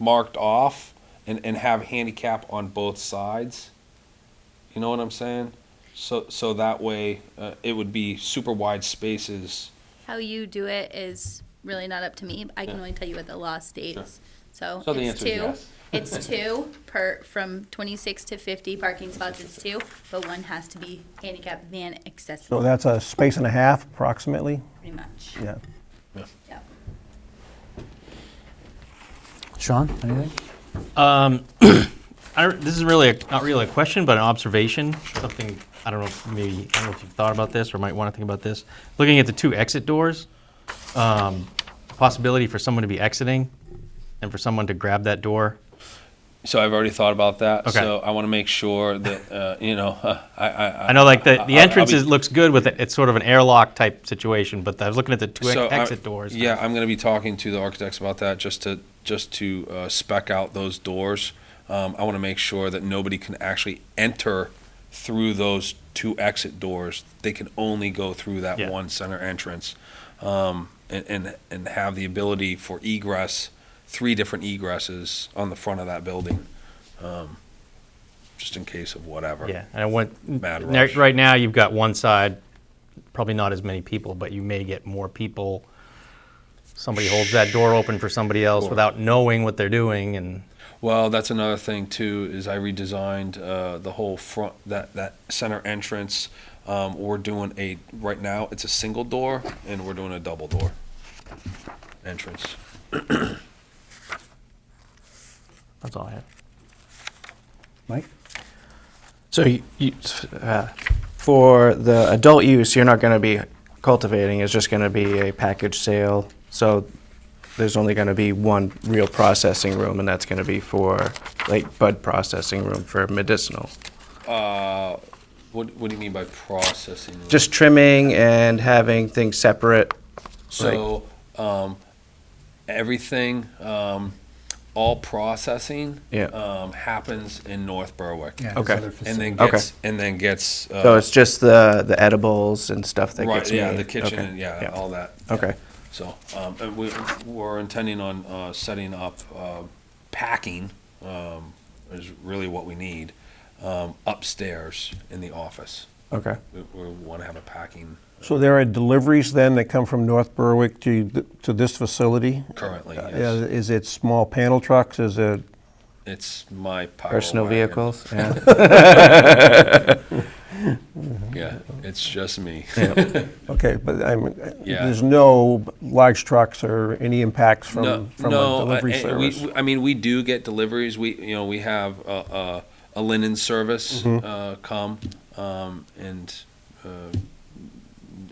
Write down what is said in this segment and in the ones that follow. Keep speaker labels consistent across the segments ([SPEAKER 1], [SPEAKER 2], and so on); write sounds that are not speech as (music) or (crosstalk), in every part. [SPEAKER 1] marked off and, and have handicap on both sides. You know what I'm saying? So, so that way, uh, it would be super wide spaces.
[SPEAKER 2] How you do it is really not up to me. I can
[SPEAKER 1] Yeah.
[SPEAKER 2] only tell you what the law states. So
[SPEAKER 1] So the
[SPEAKER 2] it's
[SPEAKER 1] answer is
[SPEAKER 2] two.
[SPEAKER 1] yes.
[SPEAKER 2] (laughs) It's two per, from twenty-six to fifty parking spots It's two, but one has to be handicap van
[SPEAKER 3] So
[SPEAKER 2] accessible,
[SPEAKER 3] that's a space and a half approximately,
[SPEAKER 2] pretty much.
[SPEAKER 3] yeah.
[SPEAKER 2] Yep.
[SPEAKER 4] Sean, anything?
[SPEAKER 5] I, this is really a, not really a question, but an observation. Something I don't know. If maybe I don't know if you've thought about this or might want to think about this. Looking at the two exit doors, um, possibility for someone to be exiting, and for someone to grab that door.
[SPEAKER 1] So I've already thought about that.
[SPEAKER 5] Okay.
[SPEAKER 1] So I want to make sure that, uh, you know, (laughs) I, I,
[SPEAKER 5] I know, like the,
[SPEAKER 1] I'll-
[SPEAKER 5] the
[SPEAKER 1] I'll
[SPEAKER 5] entrance
[SPEAKER 1] be-
[SPEAKER 5] is, looks good with it. It's sort of an airlock type situation, but I was looking at the two ex-
[SPEAKER 1] So I-
[SPEAKER 5] exit doors.
[SPEAKER 1] Yeah, I'm going to be talking to the architects about that just to just to uh, spec out those doors. Um, I want to make sure that nobody can actually enter through those two exit doors. They can only go through that
[SPEAKER 5] Yeah.
[SPEAKER 1] one center entrance, um, and, and and have the ability for egress, three different egresses on the front of that building, um, just in case of whatever.
[SPEAKER 5] Yeah, and I went.
[SPEAKER 1] Mad
[SPEAKER 5] ne-
[SPEAKER 1] rush.
[SPEAKER 5] Right now, you've got one side, probably not as many people, but you may get more people. Somebody holds that door open for somebody else
[SPEAKER 1] Sure.
[SPEAKER 5] without knowing what they're doing, and
[SPEAKER 1] Well, that's another thing too. Is I redesigned uh, the whole front that that center entrance. Um, we're doing a right now. It's a single door, and we're doing a double door entrance.
[SPEAKER 5] that's all I have.
[SPEAKER 3] Mike?
[SPEAKER 6] So you, you, uh, for the adult use, you're not going to be cultivating. It's just going to be a package sale. So there's only going to be one real processing room, and that's going to be for like bud processing room for medicinal.
[SPEAKER 1] Uh, what What do you mean by processing?
[SPEAKER 6] Just trimming and having things separate.
[SPEAKER 1] so um, everything, um, all processing,
[SPEAKER 6] Yeah.
[SPEAKER 1] um, happens in North Berwick,
[SPEAKER 4] Yeah, his
[SPEAKER 6] Okay.
[SPEAKER 4] other
[SPEAKER 1] and then
[SPEAKER 4] facility.
[SPEAKER 6] Okay.
[SPEAKER 1] gets and then gets. Uh,
[SPEAKER 6] So it's just the the edibles and stuff that
[SPEAKER 1] right,
[SPEAKER 6] gets
[SPEAKER 1] yeah,
[SPEAKER 6] made.
[SPEAKER 1] the kitchen,
[SPEAKER 6] Okay.
[SPEAKER 1] and yeah, all that.
[SPEAKER 6] Okay.
[SPEAKER 1] So, um, and we, we're intending on, uh, setting up, uh, packing, um, is really what we need, um, upstairs in the office.
[SPEAKER 6] Okay.
[SPEAKER 1] We, we wanna have a packing
[SPEAKER 3] So there are deliveries then that come from North Berwick to, th- to this facility?
[SPEAKER 1] currently,
[SPEAKER 3] Uh,
[SPEAKER 1] yes.
[SPEAKER 3] Is it small panel trucks, is it,
[SPEAKER 1] It's my power
[SPEAKER 6] Personal
[SPEAKER 1] wagon.
[SPEAKER 6] vehicles.
[SPEAKER 1] (laughs)
[SPEAKER 6] Yeah.
[SPEAKER 1] Yeah, it's just me.
[SPEAKER 3] okay, but I'm,
[SPEAKER 1] Yeah.
[SPEAKER 3] there's no large trucks or any impacts
[SPEAKER 1] No,
[SPEAKER 3] from, from
[SPEAKER 1] no,
[SPEAKER 3] a delivery
[SPEAKER 1] I, and we-
[SPEAKER 3] service?
[SPEAKER 1] we- I mean, we do get deliveries. We, you know, we have a, a, a linen service
[SPEAKER 3] Mm-hmm.
[SPEAKER 1] uh, come, um, and uh,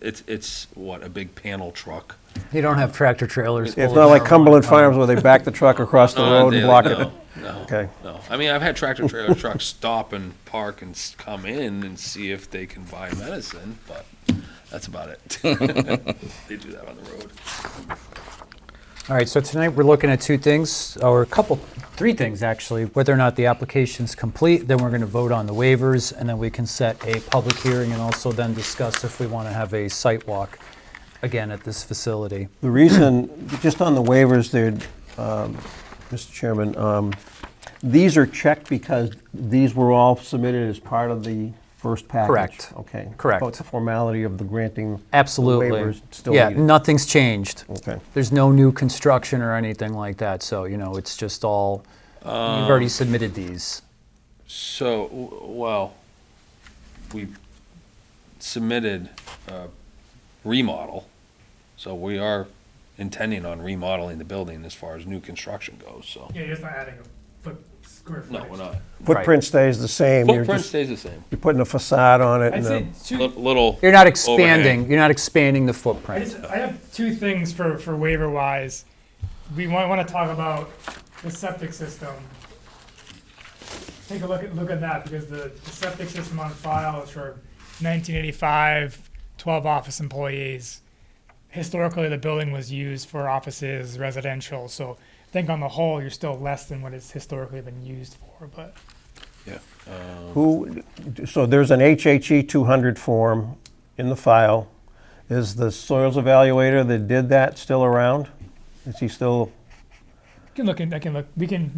[SPEAKER 1] it's it's what a big panel truck.
[SPEAKER 4] You don't have tractor trailers. full
[SPEAKER 3] It's
[SPEAKER 4] of
[SPEAKER 3] not like
[SPEAKER 4] marijuana.
[SPEAKER 3] Cumberland Farms where they back the truck across the
[SPEAKER 1] Not
[SPEAKER 3] road
[SPEAKER 1] daily,
[SPEAKER 3] and block
[SPEAKER 1] no,
[SPEAKER 3] it?
[SPEAKER 1] No,
[SPEAKER 3] Okay.
[SPEAKER 1] no. I mean, I've had tractor
[SPEAKER 3] (laughs)
[SPEAKER 1] trailer trucks stop and park and s- come in and see if they can buy medicine, but that's about it. (laughs) they do that on the road.
[SPEAKER 4] All right, so tonight we're looking at two things, or a couple, three things actually, whether or not the application's complete, then we're going to vote on the waivers, and then we can set a public hearing and also then discuss if we want to have a site walk again at this facility.
[SPEAKER 3] The reason, just on the waivers there, um, Mr. Chairman, um, these are checked because these were all submitted as part of the first package?
[SPEAKER 4] Correct.
[SPEAKER 3] Okay.
[SPEAKER 4] Correct.
[SPEAKER 3] But it's a formality of the granting?
[SPEAKER 4] Absolutely.
[SPEAKER 3] Waivers still
[SPEAKER 4] Yeah,
[SPEAKER 3] needed.
[SPEAKER 4] nothing's changed.
[SPEAKER 3] Okay.
[SPEAKER 4] There's no new construction or anything like that, so, you know, it's just all, you've
[SPEAKER 3] Um,
[SPEAKER 4] already submitted these.
[SPEAKER 1] So, w- well, we submitted a remodel, so we are intending on remodeling the building as far as new construction goes, so.
[SPEAKER 7] Yeah, you're just not adding a foot square foot.
[SPEAKER 1] No, we're not.
[SPEAKER 3] Footprint stays the same? you're
[SPEAKER 1] Footprint
[SPEAKER 3] just-
[SPEAKER 1] stays the same.
[SPEAKER 3] You're putting a facade on it
[SPEAKER 7] I'd
[SPEAKER 3] and
[SPEAKER 7] say
[SPEAKER 3] a-
[SPEAKER 1] Li-
[SPEAKER 7] two,
[SPEAKER 1] Little.
[SPEAKER 4] You're
[SPEAKER 1] overhang.
[SPEAKER 4] not expanding, you're not expanding the
[SPEAKER 7] I
[SPEAKER 4] footprint.
[SPEAKER 7] just, I have two things for, for waiver wise. We might want to talk about the septic system. Take a look at, look at that because the, the septic system on file is for 1985, 12 office employees. Historically, the building was used for offices, residential, so I think on the whole, you're still less than what it's historically been used for, but.
[SPEAKER 1] Yeah.
[SPEAKER 3] who, so there's an HHE 200 form in the file. Is the soils evaluator that did that still around? Is he still?
[SPEAKER 7] can look in, I can look, we can